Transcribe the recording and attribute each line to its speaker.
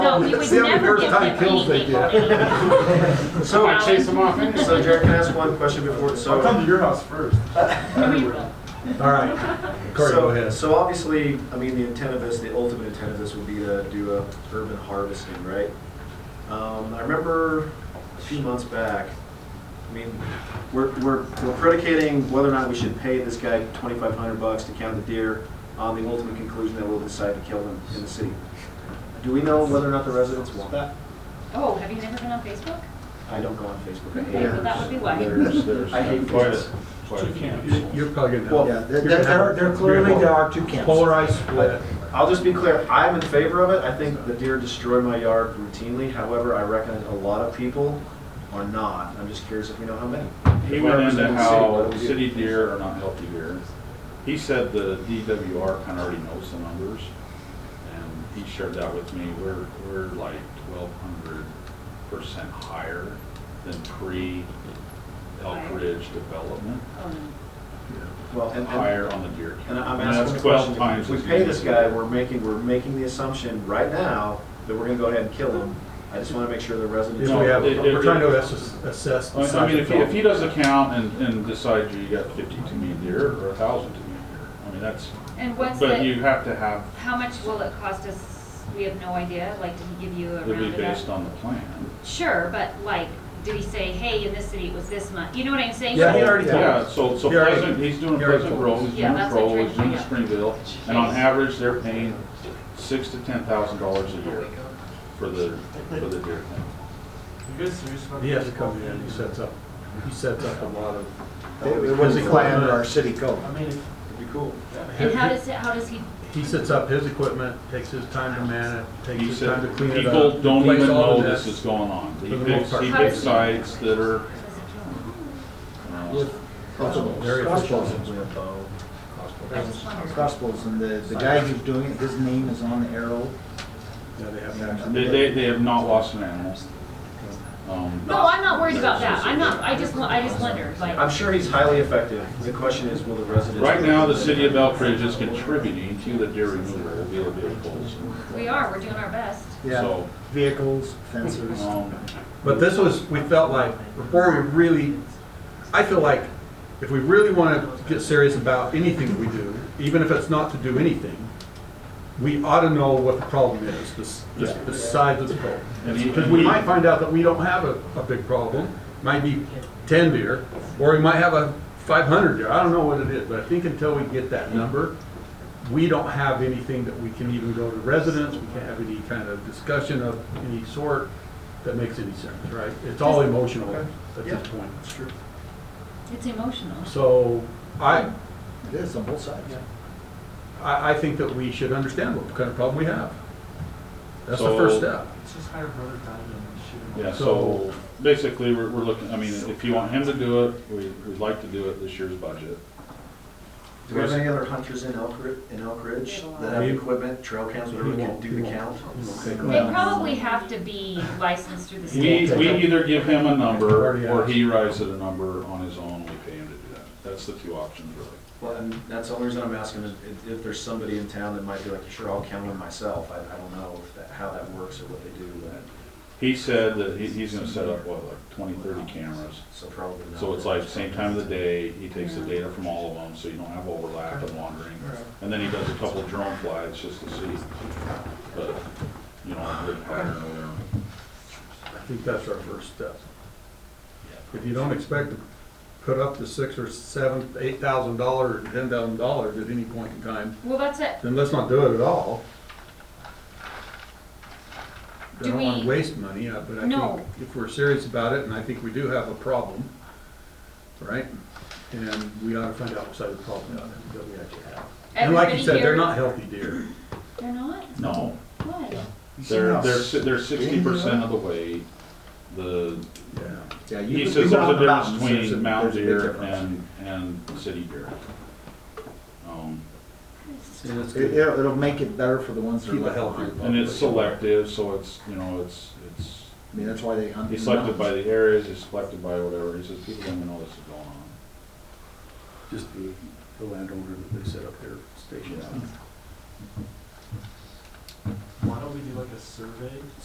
Speaker 1: No, you would
Speaker 2: See how many
Speaker 1: never
Speaker 2: first
Speaker 1: give
Speaker 2: time
Speaker 1: them
Speaker 2: kills they
Speaker 1: anything.
Speaker 2: get.
Speaker 3: So I chase them off anyway.
Speaker 4: So Jared, can I ask one question before,
Speaker 2: I'll come
Speaker 4: so,
Speaker 2: to your house first.
Speaker 1: No, you will.
Speaker 2: All right. Corey, go
Speaker 4: so,
Speaker 2: ahead.
Speaker 4: so obviously, I mean, the intent of this, the ultimate intent of this would be to do a urban harvesting, right? Um, I remember a few months back, I mean, we're, we're, we're predicating whether or not we should pay this guy twenty-five hundred bucks to count the deer on the ultimate conclusion that we'll decide to kill them in the city. Do we know whether or not the residents want that?
Speaker 1: Oh, have you never been on Facebook?
Speaker 5: Oh,
Speaker 4: I don't go on Facebook. I hate
Speaker 1: Okay, well, that would be why.
Speaker 4: There's, there's. I hate this.
Speaker 2: You're probably gonna.
Speaker 4: Well,
Speaker 6: Yeah, there,
Speaker 2: you're gonna have
Speaker 6: there
Speaker 2: a-
Speaker 6: there clearly, there are two camps.
Speaker 2: Polarized split.
Speaker 4: I'll just be clear, I'm in favor of it. I think the deer destroy my yard routinely. However, I reckon a lot of people are not. I'm just curious if we know how many.
Speaker 5: He went
Speaker 4: Represents
Speaker 5: into
Speaker 4: the city,
Speaker 5: how
Speaker 4: but we do.
Speaker 5: city deer are not healthy deer. He said the DWR kind of already knows the numbers, and he shared that with me. We're, we're like twelve hundred percent higher than pre-Elk Ridge development,
Speaker 1: Oh, no.
Speaker 4: Well, and, and,
Speaker 5: higher on the deer count.
Speaker 4: and I'm
Speaker 5: And that's
Speaker 4: asking a question.
Speaker 5: 12 times
Speaker 4: If we
Speaker 5: as
Speaker 4: pay
Speaker 5: many.
Speaker 4: this guy, we're making, we're making the assumption right now that we're gonna go ahead and kill him. I just wanna make sure the
Speaker 2: If we
Speaker 4: residents.
Speaker 5: No,
Speaker 2: have,
Speaker 5: it- it-
Speaker 2: we're trying to assess, assess. the
Speaker 5: I I mean, if he,
Speaker 2: size of
Speaker 5: if he does a count and, and decides you got fifty too many deer or a thousand too many deer, I mean, that's,
Speaker 1: And what's
Speaker 5: but
Speaker 1: the,
Speaker 5: you have to have,
Speaker 1: how much will it cost us? We have no idea, like, did he give you a
Speaker 5: it'll be
Speaker 1: round of
Speaker 5: based
Speaker 1: that?
Speaker 5: on the plan.
Speaker 1: Sure, but like, did he say, hey, in this city it was this much? You know what I'm saying?
Speaker 2: Yeah,
Speaker 1: So-
Speaker 2: he already told
Speaker 5: Yeah,
Speaker 2: us.
Speaker 5: so, so
Speaker 2: He already-
Speaker 5: Pleasant, he's doing
Speaker 2: he already
Speaker 5: Pleasant
Speaker 2: told
Speaker 5: Grove,
Speaker 2: us.
Speaker 5: he's
Speaker 1: Yeah,
Speaker 5: doing
Speaker 1: that's what I'm
Speaker 5: Crowell, he's
Speaker 1: trying to
Speaker 5: doing
Speaker 1: find
Speaker 5: Springville, and on average, they're paying six to ten thousand dollars a year for the, for the deer thing.
Speaker 2: He has to come in, he sets up, he sets up a lot of.
Speaker 6: It was a plan under our city code.
Speaker 4: It'd be cool.
Speaker 1: And how does, it- how does he,
Speaker 2: He sets up his equipment, takes his time to man it, takes
Speaker 5: He
Speaker 2: his time
Speaker 5: said,
Speaker 2: to clean it up.
Speaker 5: people don't
Speaker 2: place
Speaker 5: even
Speaker 2: all
Speaker 5: know
Speaker 2: of
Speaker 5: this is going on.
Speaker 2: For
Speaker 5: He
Speaker 2: the most
Speaker 5: picks,
Speaker 2: part.
Speaker 5: he
Speaker 1: How does
Speaker 5: picks
Speaker 1: he-
Speaker 5: sites that are,
Speaker 1: how does he
Speaker 5: uh,
Speaker 2: Very efficient.
Speaker 4: With, uh,
Speaker 1: kill him? I just wondered.
Speaker 6: Crossbows, and the, the guy who's doing it, his name is on the arrow.
Speaker 2: Yeah, they have that.
Speaker 5: they, they, they have not lost an animal. Um,
Speaker 1: No, I'm not worried about that. I'm not, I just, wa- I just wondered, like.
Speaker 4: I'm sure he's highly effective. The question is, will the residents?
Speaker 5: Right now, the city of Belfridge is contributing to the deer removal of the vehicles.
Speaker 1: We are, we're doing our best.
Speaker 6: Yeah,
Speaker 5: So,
Speaker 6: vehicles, fences.
Speaker 5: um,
Speaker 2: But this was, we felt like, before we really, I feel like if we really want to get serious about anything we do, even if it's not to do anything, we ought to know what the problem is, the, s- the s- the size of the problem.
Speaker 5: And he-
Speaker 2: Because we might find out that we don't have a, a big problem, might be ten deer, or we might have a five hundred deer, I don't know what it is, but I think until we get that number, we don't have anything that we can even go to residents, we can't have any kind of discussion of any sort that makes any sense, right? It's all emotional at this point.
Speaker 1: It's emotional.
Speaker 2: So I,
Speaker 6: It is on both sides.
Speaker 2: I, I think that we should understand what kind of problem we have. That's the first step.
Speaker 7: Let's just hire Brother Diamond and shoot him.
Speaker 5: Yeah,
Speaker 2: So-
Speaker 5: so basically, we're, we're looking, I mean, if you want him to do it, we, we'd like to do it this year's budget.
Speaker 4: Do we have any other hunters in Elk, Ri- in Elk Ridge that have equipment, trail cams, whatever, that can do the count?
Speaker 1: They probably have to be licensed through the
Speaker 5: We,
Speaker 1: state.
Speaker 5: we either give him a number, or he writes it a number on his own, we pay him to do that. That's the two options, really.
Speaker 4: Well, and that's the only reason I'm asking is if- if there's somebody in town that might be like, sure, I'll count them myself. I, I don't know if that, how that works or what they do, but,
Speaker 5: He said that he, he's gonna set up, what, like twenty, thirty cameras?
Speaker 4: so probably not.
Speaker 5: So it's like same time of the day, he takes the data from all of them, so you don't have overlap and wandering. And then he does a couple drone flights just to see, but, you know, a good pattern or whatever.
Speaker 2: I think that's our first step. If you don't expect to put up the six or seven, eight thousand dollars, ten thousand dollars at any point in time,
Speaker 1: Well, that's it.
Speaker 2: then let's not do it at all. I
Speaker 1: Do
Speaker 2: don't wanna
Speaker 1: we-
Speaker 2: waste money, uh, but I think
Speaker 1: No.
Speaker 2: if we're serious about it, and I think we do have a problem, right? And we ought to find out what side of the problem that that we actually have. And like you
Speaker 1: Everybody
Speaker 2: said, they're
Speaker 1: here-
Speaker 2: not healthy deer.
Speaker 1: They're not?
Speaker 5: No,
Speaker 1: Why?
Speaker 5: They're, they're, si- they're sixty percent of the weight. The,
Speaker 2: Yeah.
Speaker 6: Yeah, you
Speaker 5: he
Speaker 6: can
Speaker 5: says
Speaker 6: be
Speaker 5: there's
Speaker 6: around the
Speaker 5: a difference
Speaker 6: mountains, there's a-
Speaker 5: between mountain
Speaker 6: there's a big
Speaker 5: deer
Speaker 6: difference.
Speaker 5: and, and city deer. Um,
Speaker 2: And it's
Speaker 6: It,
Speaker 2: good.
Speaker 6: it'll it'll make it better for the ones that are
Speaker 2: Keep a
Speaker 6: left
Speaker 2: healthy
Speaker 6: behind.
Speaker 5: And it's
Speaker 2: population.
Speaker 5: selective, so it's, you know, it's, it's,
Speaker 6: I mean, that's why they hunt.
Speaker 5: he's
Speaker 6: in the
Speaker 5: selected by
Speaker 6: mountains.
Speaker 5: the areas, he's selected by whatever. He says people don't even know this is going on.
Speaker 2: Just the, the landowner that they set up their stations.
Speaker 7: Why don't we do like a survey